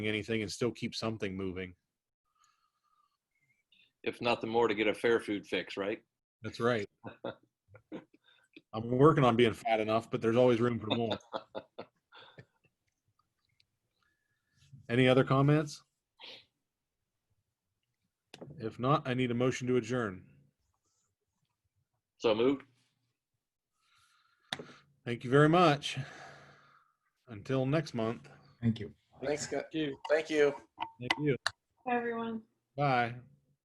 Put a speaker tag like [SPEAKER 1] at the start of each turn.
[SPEAKER 1] anything and still keep something moving.
[SPEAKER 2] if nothing more, to get a fair food fix, right?
[SPEAKER 1] That's right. I'm working on being fat enough, but there's always room for more. Any other comments? If not, I need a motion to adjourn.
[SPEAKER 2] So moved.
[SPEAKER 1] Thank you very much. Until next month.
[SPEAKER 3] Thank you.
[SPEAKER 4] Thanks, Scott. Thank you.
[SPEAKER 1] Thank you.
[SPEAKER 5] Everyone.
[SPEAKER 1] Bye.